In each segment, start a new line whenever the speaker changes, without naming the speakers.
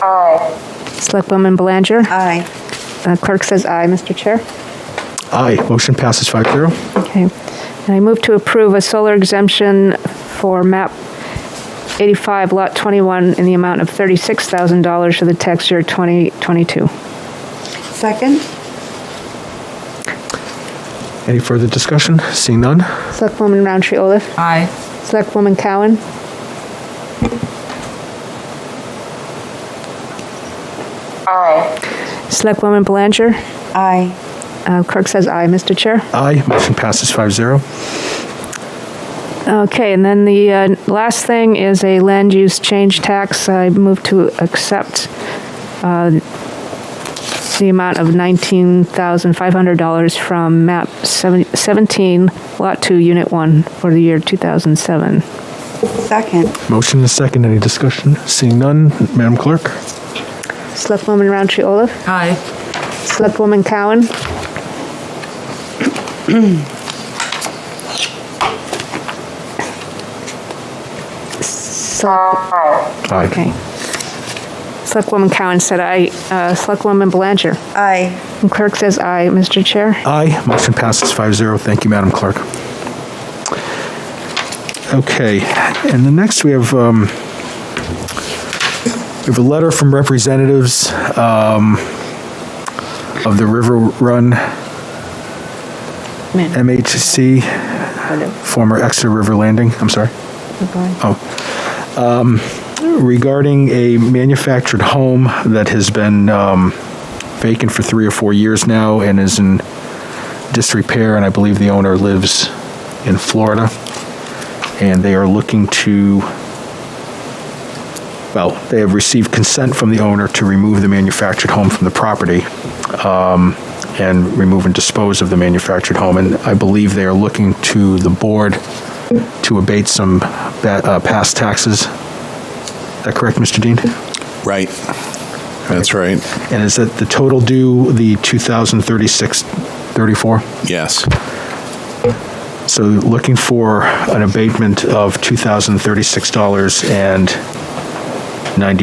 Aye.
Selectwoman Belanger?
Aye.
Uh, Clerk says aye, Mr. Chair.
Aye. Motion passes 5-0.
Okay. And I move to approve a solar exemption for MAP 85, Lot 21, in the amount of $36,000 for the tax year 2022.
Second?
Any further discussion? Seeing none?
Selectwoman Roundtree Olaf?
Aye.
Selectwoman Cowan?
Aye.
Selectwoman Belanger?
Aye.
Uh, Clerk says aye, Mr. Chair.
Aye. Motion passes 5-0.
Okay, and then the uh, last thing is a land use change tax. I move to accept uh, the amount of $19,500 from MAP 70 17, Lot 2, Unit 1, for the year 2007.
Second?
Motion and second. Any discussion? Seeing none? Madam Clerk?
Selectwoman Roundtree Olaf?
Aye.
Selectwoman Cowan? Select- Okay. Selectwoman Cowan said aye. Uh, Selectwoman Belanger.
Aye.
And clerk says aye, Mr. Chair.
Aye. Motion passes 5-0. Thank you, Madam Clerk. Okay, and the next we have, um, we have a letter from representatives um, of the River Run
Man,
MHC,
pardon.
former Exeter River Landing, I'm sorry.
Keep going.
Oh. Um, regarding a manufactured home that has been um, vacant for three or four years now and is in disrepair, and I believe the owner lives in Florida. And they are looking to, well, they have received consent from the owner to remove the manufactured home from the property um, and remove and dispose of the manufactured home. And I believe they are looking to the board to abate some ba- uh, past taxes. Is that correct, Mr. Dean?
Right. That's right.
And is that the total due the 2036, 34?
Yes.
So looking for an abatement of $2,036.94.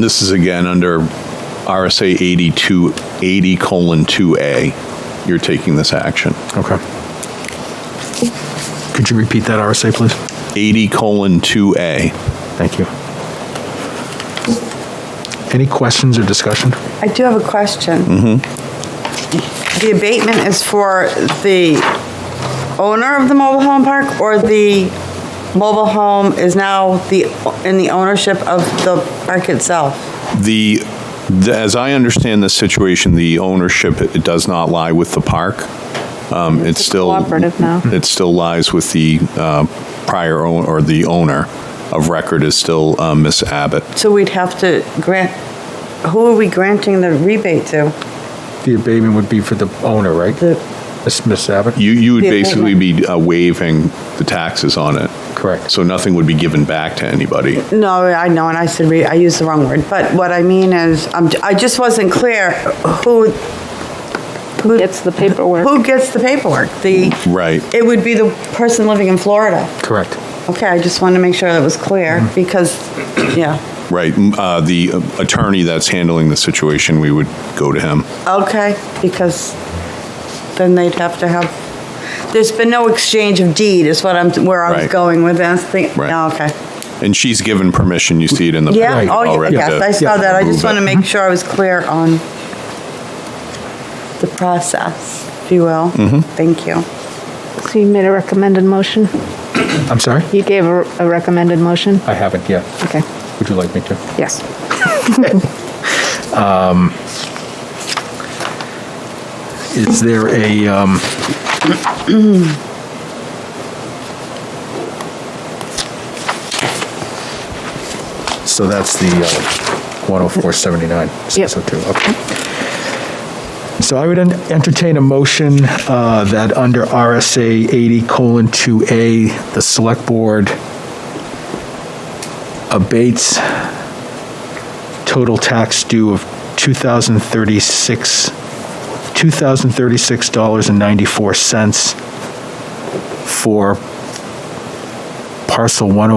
This is again under RSA 82, 80 colon 2A. You're taking this action.
Okay. Could you repeat that RSA, please?
80 colon 2A.
Thank you. Any questions or discussion?
I do have a question. The abatement is for the owner of the mobile home park, or the mobile home is now the, in the ownership of the park itself?
The, the- as I understand the situation, the ownership, it it does not lie with the park. Um, It's
a
still.
cooperative now.
It still lies with the uh, prior owner, or the owner of record is still uh, Miss Abbott.
So we'd have to grant, who are we granting the rebate to?
The abatement would be for the owner, right? Miss Miss Abbott?
You, you would
The
basically be uh, waiving the taxes on it.
Correct.
So nothing would be given back to anybody.
No, I know, and I said, re- I used the wrong word, but what I mean is, I'm- I just wasn't clear who,
Who gets the paperwork?
who gets the paperwork? The,
Right.
it would be the person living in Florida.
Correct.
Okay, I just wanted to make sure that was clear,
Mm-hmm.
because, yeah.
Right. Mm, Uh, the uh, attorney that's handling the situation, we would go to him.
Okay, because then they'd have to have, there's been no exchange of deed, is what I'm, where I was
Right.
going with this thing.
Right.
Oh, Okay.
And she's given permission. You see it in the
Yeah,
packet
oh,
already
yes,
to
I saw that. I just
remove
want to
it. Mm-hmm.
make sure I was clear on the process, if you will.
Mm-hmm.
Thank you.
So you made a recommended motion?
I'm sorry?
You gave a a recommended motion?
I haven't yet.
Okay,
Would you like me to?
yes.
Is there a, um, so that's the uh, 10479,
Yep.
602, okay. oh So I would en- entertain a motion uh, that under RSA 80 colon 2A, the select board abates total tax due of 2036 $2,036.94 for parcel 108.